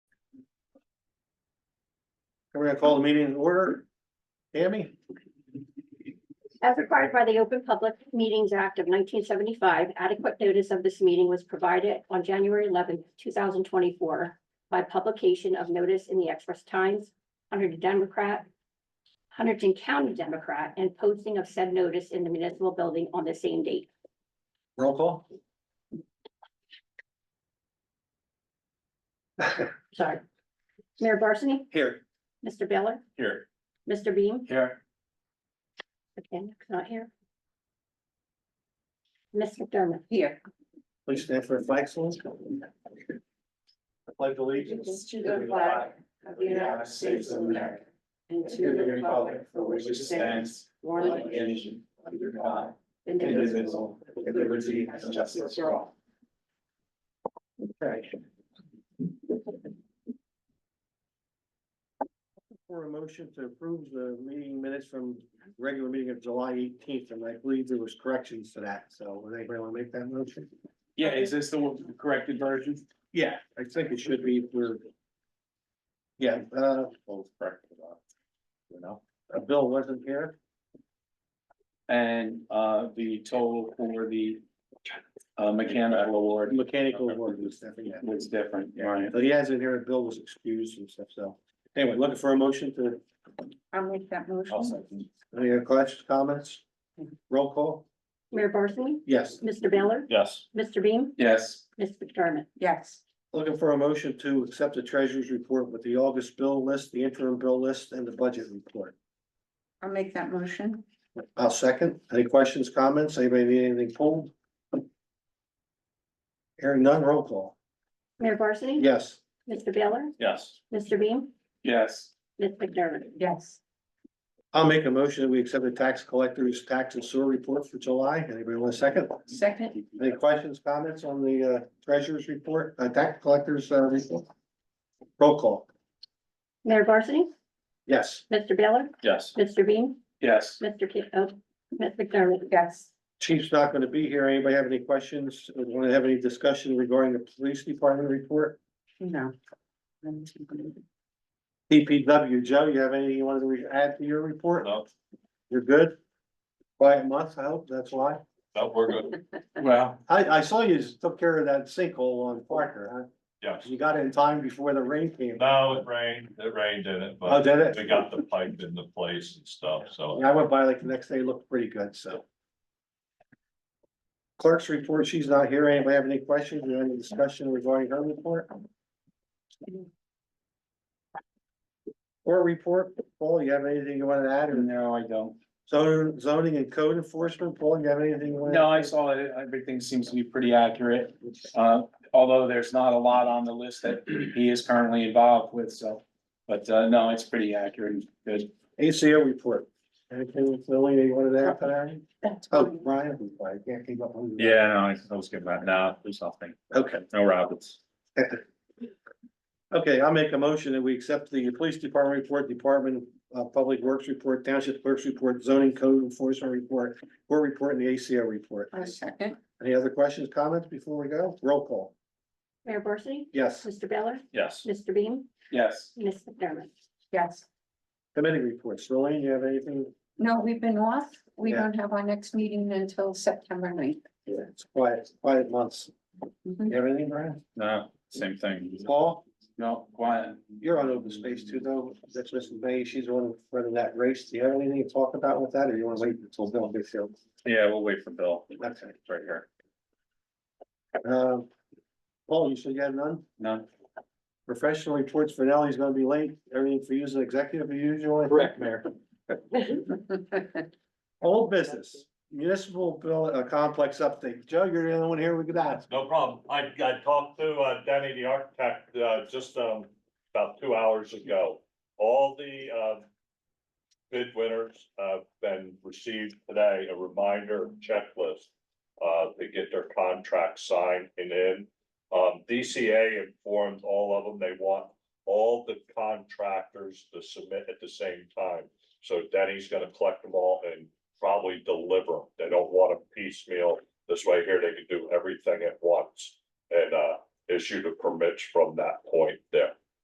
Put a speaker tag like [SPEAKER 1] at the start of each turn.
[SPEAKER 1] We're gonna call the meeting in order. Tammy?
[SPEAKER 2] As required by the Open Public Meetings Act of nineteen seventy-five, adequate notice of this meeting was provided on January eleventh, two thousand twenty-four by publication of notice in the Express Times, Hunter Democrat, Huntington County Democrat, and posting of said notice in the municipal building on the same date.
[SPEAKER 1] Roll call?
[SPEAKER 2] Sorry. Mayor Barsney?
[SPEAKER 1] Here.
[SPEAKER 2] Mr. Baylor?
[SPEAKER 1] Here.
[SPEAKER 2] Mr. Beam?
[SPEAKER 1] Here.
[SPEAKER 2] Okay, not here. Ms. McDermott? Here.
[SPEAKER 1] Please stand for reflections. Pledge allegiance.
[SPEAKER 3] allegiance to the flag of the United States of America and to the republic for which it stands, one nation, under God, indivisible, with liberty and justice for all.
[SPEAKER 1] Okay. For a motion to approve the meeting minutes from regular meeting of July eighteenth, and I believe there was corrections to that, so would anybody wanna make that motion?
[SPEAKER 4] Yeah, is this the corrected version?
[SPEAKER 1] Yeah, I think it should be, we're. Yeah, uh,
[SPEAKER 4] Both corrected. uh, You know,
[SPEAKER 1] uh, Bill wasn't here,
[SPEAKER 4] and uh, the total for the uh, mechanical award
[SPEAKER 1] mechanical work and stuff, yeah.
[SPEAKER 4] was different, right?
[SPEAKER 1] But he hasn't here, Bill was excused and stuff, so. Anyway, looking for a motion to,
[SPEAKER 3] I'll make that
[SPEAKER 4] Also,
[SPEAKER 1] any other questions, comments? Roll call?
[SPEAKER 2] Mayor Barsney?
[SPEAKER 1] Yes.
[SPEAKER 2] Mr. Baylor?
[SPEAKER 4] Yes.
[SPEAKER 2] Mr. Beam?
[SPEAKER 4] Yes,
[SPEAKER 2] Ms. McDermott?
[SPEAKER 3] Yes,
[SPEAKER 1] Looking for a motion to accept the treasurer's report with the August bill list, the interim bill list, and the budget report.
[SPEAKER 3] I'll make that motion.
[SPEAKER 1] I'll second. Any questions, comments? Anybody need anything pulled? Hearing none, roll call.
[SPEAKER 2] Mayor Barsney?
[SPEAKER 1] Yes.
[SPEAKER 2] Mr. Baylor?
[SPEAKER 4] yes,
[SPEAKER 2] Mr. Beam?
[SPEAKER 4] yes,
[SPEAKER 2] Ms. McDermott?
[SPEAKER 3] Yes,
[SPEAKER 1] I'll make a motion that we accept the tax collector's tax and sewer report for July. Anybody want a second?
[SPEAKER 3] second,
[SPEAKER 1] Any questions, comments on the uh, treasurer's report, uh, tax collector's uh, report? Roll call.
[SPEAKER 2] Mayor Barsney?
[SPEAKER 1] Yes.
[SPEAKER 2] Mr. Baylor?
[SPEAKER 4] yes,
[SPEAKER 2] Mr. Beam?
[SPEAKER 4] yes.
[SPEAKER 2] Mr. Ki- oh, Ms. McDermott?
[SPEAKER 3] yes,
[SPEAKER 1] Chief's not going to be here. Anybody have any questions? Want to have any discussion regarding the police department report?
[SPEAKER 3] no.
[SPEAKER 1] DPW, Joe, you have anything you wanted to re- add to your report?
[SPEAKER 5] No,
[SPEAKER 1] You're good? Quiet month, I hope, that's why.
[SPEAKER 5] no, we're good,
[SPEAKER 4] Well,
[SPEAKER 1] I, I saw you took care of that sinkhole on Parker, huh?
[SPEAKER 5] yes.
[SPEAKER 1] You got it in time before the rain came.
[SPEAKER 5] No, it rained, it rained in it,
[SPEAKER 1] Oh,
[SPEAKER 5] but
[SPEAKER 1] did it?
[SPEAKER 5] we got the pipe into place and stuff, so.
[SPEAKER 1] Yeah, I went by like the next day, it looked pretty good, so. Clerk's report, she's not here. Anybody have any questions or any discussion regarding her report? Or report, Paul, you have anything you want to add or
[SPEAKER 4] no, I don't.
[SPEAKER 1] zone- zoning and code enforcement, Paul, you have anything? you wanna-
[SPEAKER 4] No, I saw it. Everything seems to be pretty accurate. Uh, although there's not a lot on the list that he is currently involved with, so. But uh, no, it's pretty accurate. and Good.
[SPEAKER 1] ACO report. Anything, Lily, that you wanted to add to that?
[SPEAKER 3] That's
[SPEAKER 1] Oh,
[SPEAKER 3] fine.
[SPEAKER 1] Brian, I can't keep up. with you.
[SPEAKER 5] Yeah, no, I was giving that, no, there's nothing,
[SPEAKER 1] Okay.
[SPEAKER 5] no rabbits.
[SPEAKER 1] Okay, I'll make a motion that we accept the police department report, department of public works report, township clerk's report, zoning code enforcement report, court report and the ACO report.
[SPEAKER 3] I'll second,
[SPEAKER 1] Any other questions, comments before we go? Roll call.
[SPEAKER 2] Mayor Barsney?
[SPEAKER 1] Yes.
[SPEAKER 2] Mr. Baylor?
[SPEAKER 5] Yes,
[SPEAKER 2] Mr. Beam?
[SPEAKER 4] Yes,
[SPEAKER 2] Ms. McDermott?
[SPEAKER 3] yes.
[SPEAKER 1] Committee reports. Lorraine, you have anything?
[SPEAKER 3] No, we've been off. We
[SPEAKER 1] Yeah.
[SPEAKER 3] don't have our next meeting until September ninth.
[SPEAKER 1] Yeah, It's quiet, quiet months. You have anything, Brian?
[SPEAKER 5] no, same thing.
[SPEAKER 1] Paul,
[SPEAKER 4] no, quiet.
[SPEAKER 1] you're on open space too, though. That's Mrs. May. She's the one running that race. Do you have anything to talk about with that or you want to wait until Bill gets here?
[SPEAKER 5] Yeah, we'll wait for Bill, It's
[SPEAKER 1] Okay.
[SPEAKER 5] right here.
[SPEAKER 1] Um, Paul, you said you had none?
[SPEAKER 4] None.
[SPEAKER 1] Professional reports for Nelly's gonna be late, everything for you as an executive as usual.
[SPEAKER 4] Correct, Mayor.
[SPEAKER 1] Old business, municipal bill, uh, complex update. Joe, you're the only one here, we could ask.
[SPEAKER 5] No problem. I, I talked to uh, Danny, the architect, uh, just, um, about two hours ago. All the, uh, bid winners, uh, been received today, a reminder checklist, uh, to get their contract signed and in. Um, DCA informed all of them, they want all the contractors to submit at the same time. So Denny's gonna collect them all and probably deliver. 'em. They don't want a piecemeal this way here, they could do everything at once and uh issue the permits from that point there.